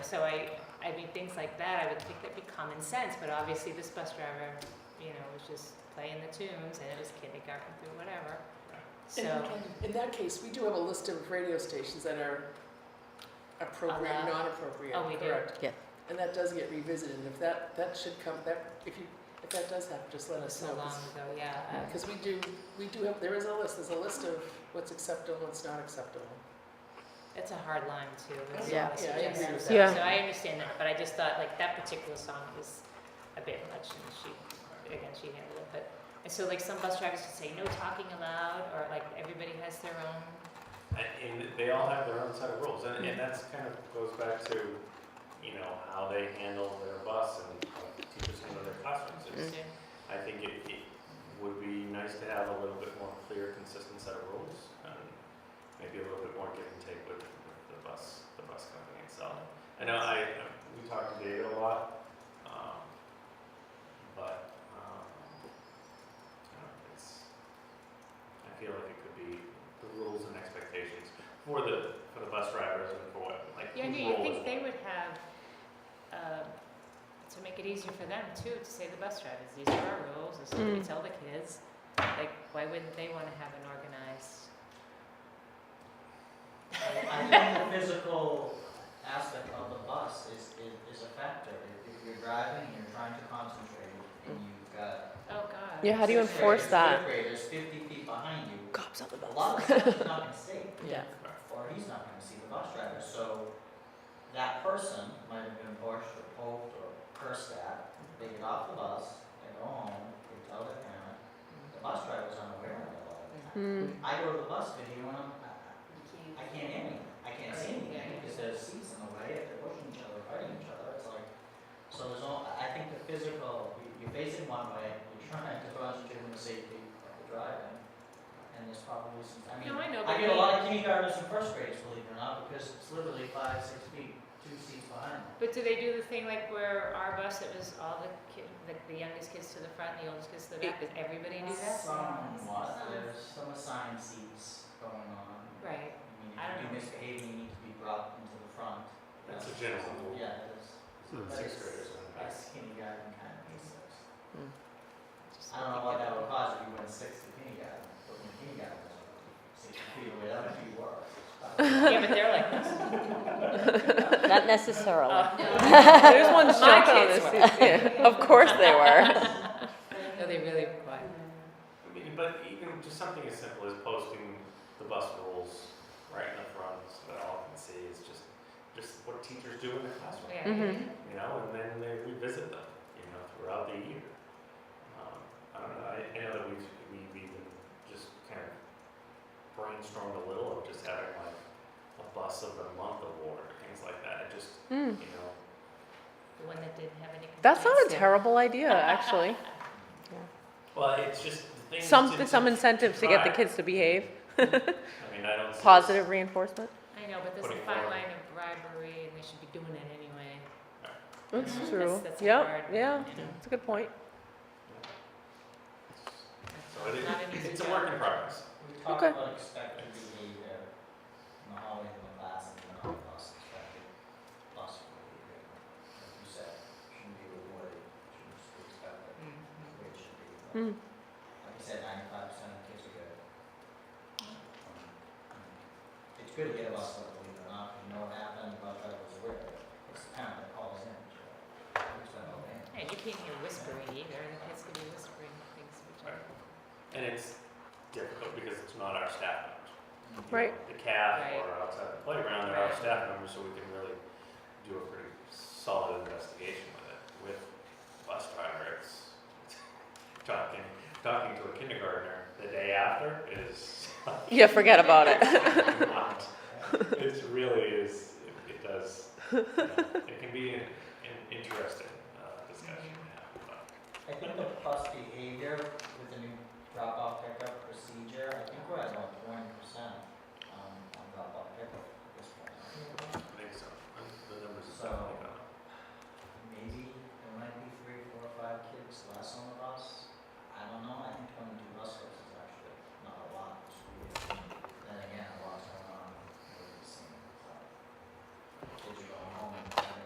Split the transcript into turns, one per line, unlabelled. so I, I mean, things like that, I would think that'd be common sense, but obviously this bus driver, you know, was just playing the tunes and it was kindergarten through whatever.
In-
So,
In that case, we do have a list of radio stations that are appropriate,
Allowed.
not appropriate,
Oh, we do.
correct?
Yeah.
And that does get revisited, and if that, that should come, that, if you, if that does happen, just let us
so
know.
long ago, yeah.
Because we do, we do have, there is a list, there's a list of what's acceptable, and what's not acceptable.
It's a hard line too.
Oh,
It's
yeah.
always
Yeah, I agree
suggested.
with
So
that.
so I understand that, but I just thought like that particular song was a bit much and she, again, she handled it, but. And so like some bus drivers could say no talking allowed or like everybody has their own,
And, and they all have their own set of rules, and, and that's kind of goes back to, you know, how they handle their bus and how teachers handle their classrooms. It's-
Yeah.
I think it, it would be nice to have a little bit more clear, consistent set of rules, and maybe a little bit more give and take with, with the bus, the bus company itself. I know I, we talk to David a lot, um, but, um, I don't know, it's, I feel like it could be the rules and expectations for the, for the bus drivers and for what, like,
Yeah, no,
whose
you
role
think
is
they
what.
would have, um, to make it easier for them too, to say the bus drivers, these are our rules, this is what we
Mm.
tell the kids. Like, why wouldn't they wanna have an organized,
I think the physical aspect of the bus is, is, is a factor. If if you're driving, and you're trying to concentrate, and you've got.
oh god.
Yeah, how do you
sixth
enforce
graders,
that?
Fifth graders, fifty feet behind you,
Cops on the
a lot of the stuff you're not gonna see,
Yeah.
or he's not gonna see the bus driver, so that person might have been pushed or poked or cursed at, they get off the bus, they go home, they tell their parent, the bus driver's unaware of it all the time.
Hmm.
I go to the bus video and I'm, I-
You
I
can't-
can't hear anything. I can't see anything because there's seats in the way. If they're pushing each other, fighting each other, it's like, so there's all, I I think the physical, you- you're facing one way, you're trying to concentrate on the safety of the driving. And there's probably some, I mean,
No, I know,
I
but
get a lot
they,
of kindergartners and first graders, believe it or not, because it's literally five, six feet, two seats behind them.
but do they do the thing like where our bus, it was all the kid, like the youngest kids to the front, and the oldest kids to the back, does everybody do that?
Some, what, there's some assigned seats going on.
Right,
I
I
mean, if you
don't
do
know.
misbehave, you need to be brought into the front.
That's a
Yeah.
general rule.
Yeah, that's.
Hmm.
It's Sixth graders and the bus.
That's kindergarten kind of research.
Just
I
something
don't know what
about-
that would cause if you went sixth to kindergarten, but when kindergarten was six feet away, that would be worse.
Yeah, but they're like this.
Not necessarily.
Oh,
There's one
My kids were.
Of course they were.
No, they really were quiet.
I mean, but even just something as simple as posting the bus rules right in the front so that all can see is just, just what teachers do in the classroom,
Yeah.
Mhm.
you know, and then they revisit them, you know, throughout the year. Um, I don't know, I, I know that we've, we've even just kind of brainstormed a little of just having like a bus of the month award, or things like that, and just,
Hmm.
you know,
The one that didn't have any.
That's not a
complaints.
terrible idea, actually.
well, it's just the things.
Some,
to-
some incentives to get the
try.
kids to behave,
I mean, I don't. see this-
positive reinforcement.
I know, but there's a
Putting
fine
forward.
line of bribery and they should be doing it anyway.
That's
Mhm.
true.
That's- that's a
Yep,
hard
yeah,
one, you know.
that's a good point.
So it,
Not an easy
it's a
job.
work in progress.
We talked
Okay.
about expected behavior in the hallway of the class and the non-bus expected bus behavior.
Hmm.
Like you said, shouldn't be rewarded, shouldn't just be expected,
Mhm.
which should be.
Hmm.
rewarded. like I said, ninety-five percent of kids are good. Um, It's good to get a bus stop, believe it or not, you know what happened, the bus driver was aware, of it. it's the parent that calls in, so, it's
Oh,
like, oh, okay.
And you can't hear whispering either, and the kids could be whispering things which are.
And it's difficult because it's not our staff members. You know,
Right.
The CAF
Right.
or outside the playground, they're our
Right.
staff members, so we can really do a pretty solid investigation with it. With bus driver, it's talking, talking to a kindergartner the day after is
Yeah, forget about it.
not, it really is, it- it does, you know, it can be an, an interesting uh, discussion to have, but.
I think the bus behavior with the new drop-off pickup procedure, I think we're at about twenty percent, um, on drop-off pickup at this point.
I think so. The numbers
So,